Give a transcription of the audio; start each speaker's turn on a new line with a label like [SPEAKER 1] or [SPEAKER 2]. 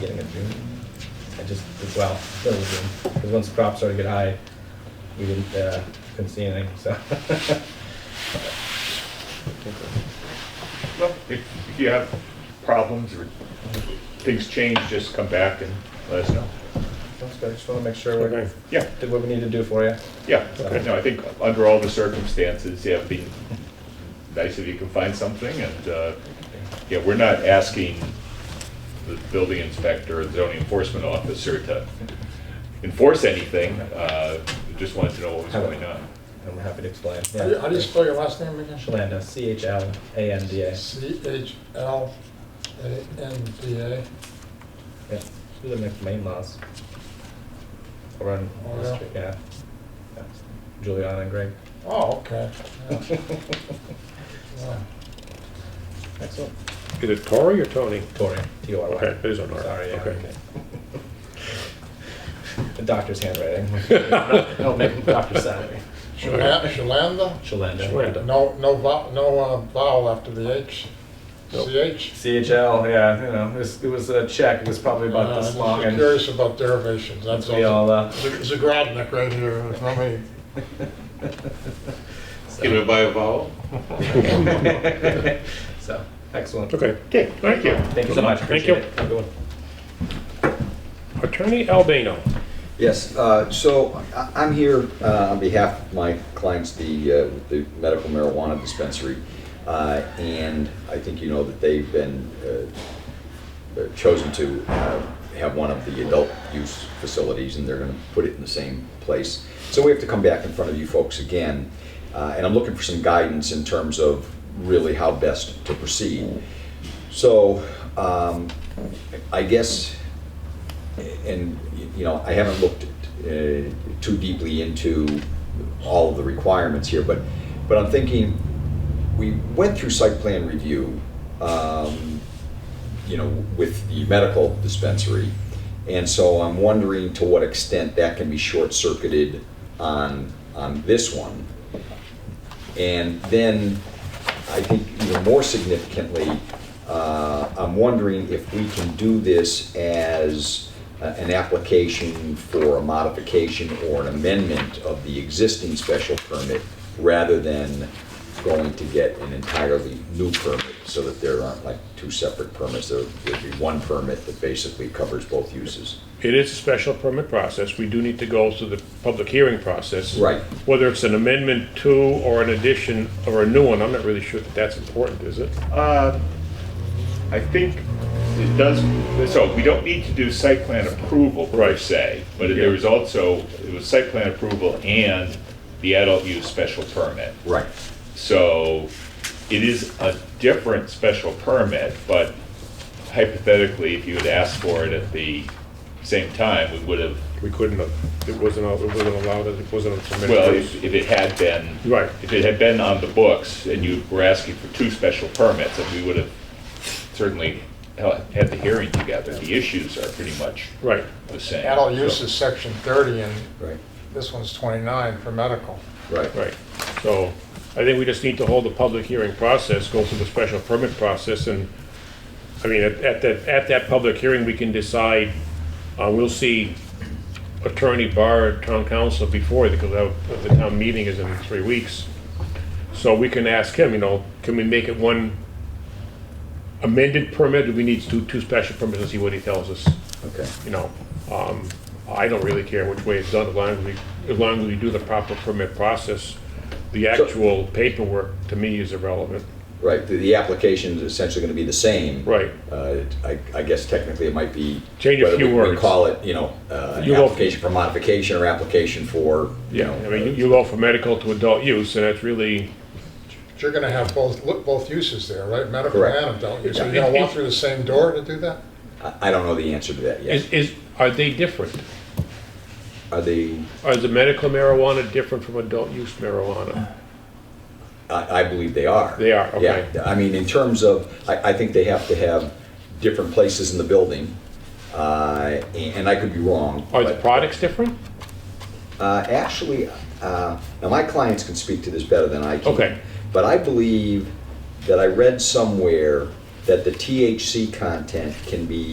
[SPEAKER 1] getting a June. I just, well, still June, because once crops started to get high, we didn't, uh, couldn't see anything, so.
[SPEAKER 2] Well, If if you have problems or things change, just come back and let us know.
[SPEAKER 1] That's good, I just wanna make sure
[SPEAKER 3] Okay.
[SPEAKER 1] we're,
[SPEAKER 2] Yeah,
[SPEAKER 1] did what we need to do for you.
[SPEAKER 2] yeah, no, I think under all the circumstances, yeah, it'd be nice if you can find something, and, uh, yeah, we're not asking the building inspector or the zoning enforcement officer to enforce anything, uh, we just wanted to know what was going on.
[SPEAKER 1] I'm happy to explain,
[SPEAKER 3] How do you- how do you
[SPEAKER 1] yeah.
[SPEAKER 3] spell your last name again?
[SPEAKER 1] Chalanda, C H L A N D A.
[SPEAKER 3] C H L A N D A.
[SPEAKER 1] Yeah, she lived next to my in-laws. Over on
[SPEAKER 3] Oh,
[SPEAKER 1] the
[SPEAKER 3] yeah?
[SPEAKER 1] street, yeah. yeah. Juliana and Greg.
[SPEAKER 3] Oh, okay. Yeah. Yeah.
[SPEAKER 1] Excellent.
[SPEAKER 4] Is it Tori or Tony?
[SPEAKER 1] Tori, T O R Y.
[SPEAKER 4] Okay, it is on our.
[SPEAKER 1] Sorry, yeah.
[SPEAKER 4] okay.
[SPEAKER 1] The doctor's handwriting. It'll make him doctor Oh, salary.
[SPEAKER 3] Shalan- Shalanda?
[SPEAKER 1] Shalanda.
[SPEAKER 4] Shalanda.
[SPEAKER 3] No, no vowel, no uh, vowel after the H.
[SPEAKER 4] Nope.
[SPEAKER 3] CH?
[SPEAKER 1] CHL, yeah, you know, it was, it was a check. It was probably about
[SPEAKER 3] Uh,
[SPEAKER 1] this
[SPEAKER 3] I'm
[SPEAKER 1] long.
[SPEAKER 3] just
[SPEAKER 1] And
[SPEAKER 3] Curious about derivations, that's
[SPEAKER 1] we all,
[SPEAKER 3] all.
[SPEAKER 1] uh,
[SPEAKER 3] Z- Zagradnik right here, it's not me.
[SPEAKER 1] so-
[SPEAKER 2] Give it by a vowel?
[SPEAKER 1] so, excellent.
[SPEAKER 4] Okay.
[SPEAKER 2] Okay, thank you.
[SPEAKER 1] Thank you so much.
[SPEAKER 4] Thank you.
[SPEAKER 1] Appreciate it. Have a good one.
[SPEAKER 4] Attorney Albano.
[SPEAKER 5] Yes, uh, so I- I'm here uh, on behalf of my clients, the uh, the medical marijuana dispensary, uh, and I think you know that they've been uh, uh, chosen to uh, have one of the adult use facilities, and they're going to put it in the same place. So we have to come back in front of you folks again, uh, and I'm looking for some guidance in terms of really how best to proceed. So um, I guess and, you know, I haven't looked uh, too deeply into all of the requirements here, but, but I'm thinking, we went through site plan review, um, you know, with the medical dispensary. And so I'm wondering to what extent that can be short-circuited on, on this one. And then, I think even more significantly, uh, I'm wondering if we can do this as a- an application for a modification or an amendment of the existing special permit rather than going to get an entirely new permit, so that there aren't like two separate permits, there would be one permit that basically covers both uses.
[SPEAKER 4] It is a special permit process. We do need to go through the public hearing process.
[SPEAKER 5] Right.
[SPEAKER 4] Whether it's an amendment to or an addition or a new one, I'm not really sure that that's important, is it?
[SPEAKER 2] Uh, I think it does, so we don't need to do site plan approval per
[SPEAKER 4] Right.
[SPEAKER 2] se, but there was also, it was site plan approval and the adult use special permit.
[SPEAKER 5] Right.
[SPEAKER 2] So it is a different special permit, but hypothetically, if you had asked for it at the same time, we would have,
[SPEAKER 4] We couldn't have, it wasn't, al- it wasn't allowed, it wasn't permitted.
[SPEAKER 2] well, if if it had been.
[SPEAKER 4] Right.
[SPEAKER 2] If it had been on the books and you were asking for two special permits, then we would have certainly hel- had the hearing together. The issues are pretty much
[SPEAKER 4] Right.
[SPEAKER 2] the same.
[SPEAKER 3] Adult use
[SPEAKER 2] so-
[SPEAKER 3] is section thirty and
[SPEAKER 5] Right.
[SPEAKER 3] this one's twenty-nine for medical.
[SPEAKER 5] Right.
[SPEAKER 4] Right, so I think we just need to hold the public hearing process, go through the special permit process, and, I mean, at, at that, at that public hearing, we can decide, uh, we'll see Attorney Barr, town council before, because that- the town meeting is in three weeks. So we can ask him, you know, can we make it one amended permit, do we need to do two special permits, and see what he tells us?
[SPEAKER 5] Okay.
[SPEAKER 4] you know, um, I don't really care which way it's done, as long as we, as long as we do the proper permit process. The actual paperwork, to me, is irrelevant.
[SPEAKER 5] Right, the, the application is essentially gonna be the same.
[SPEAKER 4] Right.
[SPEAKER 5] Uh, I, I guess technically it might be.
[SPEAKER 4] Change a
[SPEAKER 5] whether
[SPEAKER 4] few
[SPEAKER 5] we- We
[SPEAKER 4] words.
[SPEAKER 5] call it, you know, uh, an
[SPEAKER 4] You will-
[SPEAKER 5] application for modification or application for, you know.
[SPEAKER 4] I mean, you- you go from medical to adult use, and that's really,
[SPEAKER 3] But You're gonna have both, look, both uses there, right? Medical
[SPEAKER 5] Correct.
[SPEAKER 3] and adult use. So you're gonna walk through the same door to do that?
[SPEAKER 5] uh, I, I don't know the answer to that yet.
[SPEAKER 4] is, is, are they different?
[SPEAKER 5] Are they,
[SPEAKER 4] Are the medical marijuana different from adult use marijuana?
[SPEAKER 5] I, I believe they are.
[SPEAKER 4] They are, okay.
[SPEAKER 5] Yeah, I mean, in terms of, I, I think they have to have different places in the building. Uh, and, and I could be wrong.
[SPEAKER 4] Are the
[SPEAKER 5] but-
[SPEAKER 4] products different?
[SPEAKER 5] Uh, Actually, uh, now my clients can speak to this better than I can.
[SPEAKER 4] Okay.
[SPEAKER 5] But I believe that I read somewhere that the THC content can be